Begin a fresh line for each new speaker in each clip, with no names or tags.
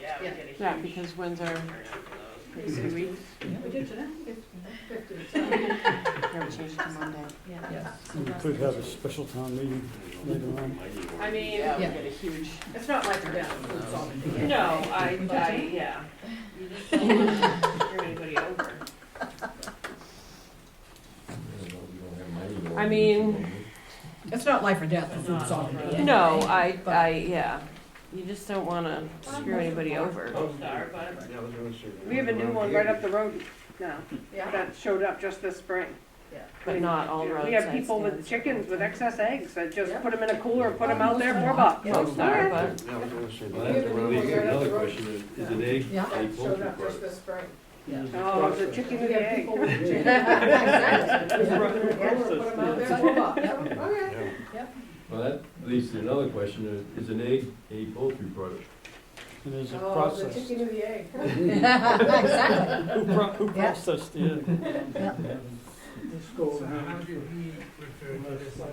that would
Yeah.
get a huge
Yeah,
turnout
because when's our,
for
in two weeks?
We did today, It's
Yeah, we changed to Monday.
yeah.
We could have a special town meeting later on.
those. I mean, that
Yeah.
would get a huge,
It's not like we're down, for solving it.
no, I, I, yeah. You just don't want to screw anybody over.
I mean-
It's not life or death, for food sovereignty. anyway.
No, I,
But-
I, yeah, you just don't wanna screw anybody over.
Star, but we have a new one right up the road now
Yeah.
that showed up just this spring.
But not all roads.
We have people with chickens with excess eggs that just
Yeah.
put them in a cooler, put them out there, four bucks.
Yeah.
Most are, but
Well, that's
Yeah,
really
but-
another question, is is it egg,
Yeah.
egg poultry product?
this spring.
Oh, the chicken and the egg.
Well, that leads to another question, is is an egg a poultry product?
And there's a process.
and the egg.
Who pro- who
Yeah.
processed the egg?
So how did he refer to this on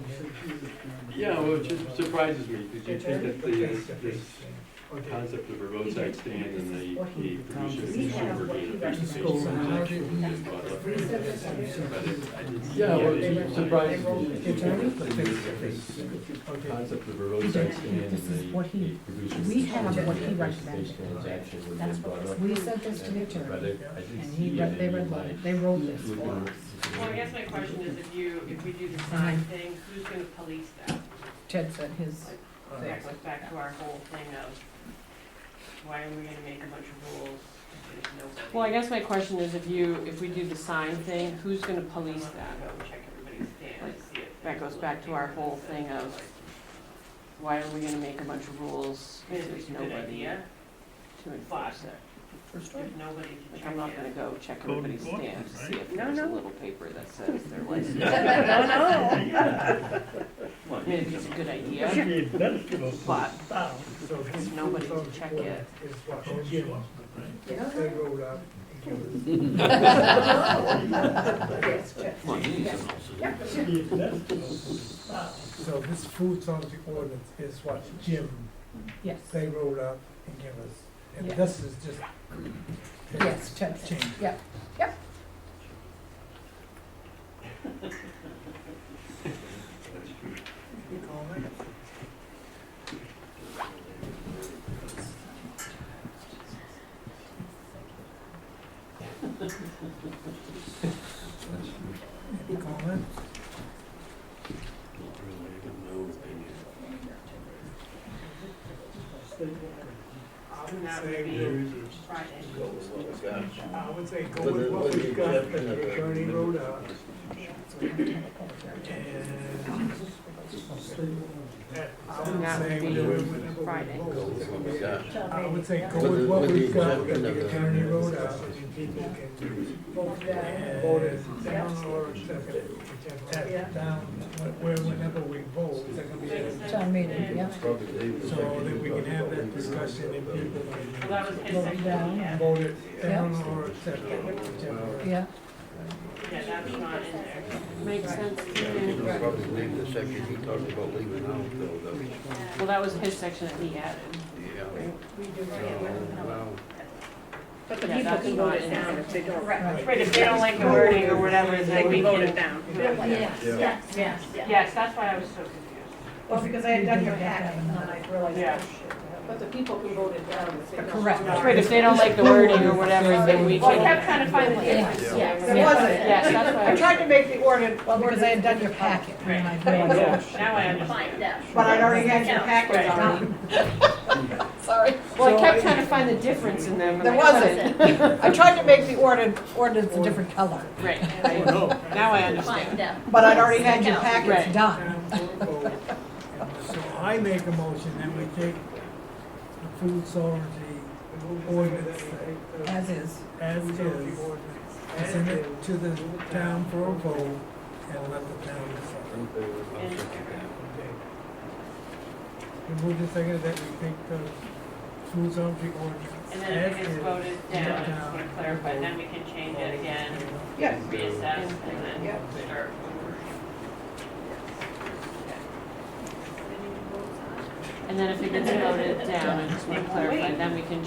Yeah, well, it just surprises me, because you think that the, this
his?
concept of a roadside stand and the, the producer and
We have
consumer being a face-to-face
So how did
transaction
he?
is brought up.
refer to this on
But it- I didn't-
Yeah, well,
it
they-
surprises
they
me.
wrote
It's
it down.
like this
Okay.
Concept of a roadside stand and
This is
the,
what
the
he-
producer.
we
and
have
consumer
what
being
he
a face-to-face
recommended.
Transaction was
That's what
then brought
it
up.
is. We sent this to the
But
attorney,
it- I didn't
and
see
he,
it
re- they
in
wrote,
my-
it. they wrote this
Would
for
you-
us.
Well, I guess my question is if you, if we do the sign
Mm-hmm.
thing, who's gonna police that?
Ted sent his,
That goes back to our whole thing of, why are we gonna make a bunch of rules? if there's nobody?
Well, I guess my question is if you, if we do the sign thing, who's gonna police
I'm
that?
gonna go check everybody's stand and see if.
That goes back to our whole thing of- Why are we gonna make a bunch of rules
I mean,
if
it's
there's
a good
nobody to
idea,
enforce it?
first one.
there's nobody to
Like,
check
I'm not gonna
it.
go check everybody's stamps, to see if
No,
there's a
no.
little paper that says their license.
No, no.
I mean, if it's a good idea, but
So his
Nobody to
food
check it.
sovereignty Is what he was, they wrote up. and So this food sovereignty ordinance is what Jim,
Yes,
they wrote up and give us, and
Yeah.
this is just.
yes, Ted sent,
Change.
yeah,
Any comment?
And that would
Say
be Friday.
I would say go with what we've got, that the attorney wrote up. And that, I would
That
say
would be
do it whenever we
Friday.
vote. I would say go with what we've got, that the attorney wrote up, and people can vote it down or accept it, whichever,
Yeah.
down, where, whenever we vote, it's gonna be a-
town meeting, yeah.
so that we can have that discussion and people
Well, that was his
Well,
section,
down.
yeah,
vote it down or accept it, whichever.
yeah.
yeah, that's not in there.
makes sense to me.
Probably leave the section he talked about leaving out though, though.
Well, that was his section that he added.
Yeah. Well,
But the
Yeah,
people
that's
can vote
not
it
in
down
there.
if they don't.
Right.
Right, if they don't like the wording or whatever, they can vote it down.
Yes, yes,
yes,
Yes, that's why I was so confused.
Well, because I had done your hack and then I realized.
Yeah.
But the people can vote it down if they don't.
Correct.
Right, if they don't like the wording or whatever, then we
Well, I
can.
kept trying to find the difference.
Yeah.
There wasn't.
Yes, that's
I
why.
tried to make the order,
Well, because I had done your packet, and I realized,
Now I understand.
but I'd already had your package already.
sorry,
Well, I kept trying to find the difference in them. and
there
I couldn't.
wasn't. I tried to make the order, ordinance a different color,
Right, right. Now I understand.
but I'd already had your
Right.
packets done.
So I make a motion that we take the food sovereignty ordinance
As is,
as is, and send it uh, to the town for a vote, and let the town decide. And move the second that we take the food sovereignty ordinance.
And then if
as
it gets
is,
voted
and
down,
let
I just
town
want to clarify, and then we can change it again,
Yes.
reassess, and then start.
And then if it gets voted down, I just want to clarify, then we can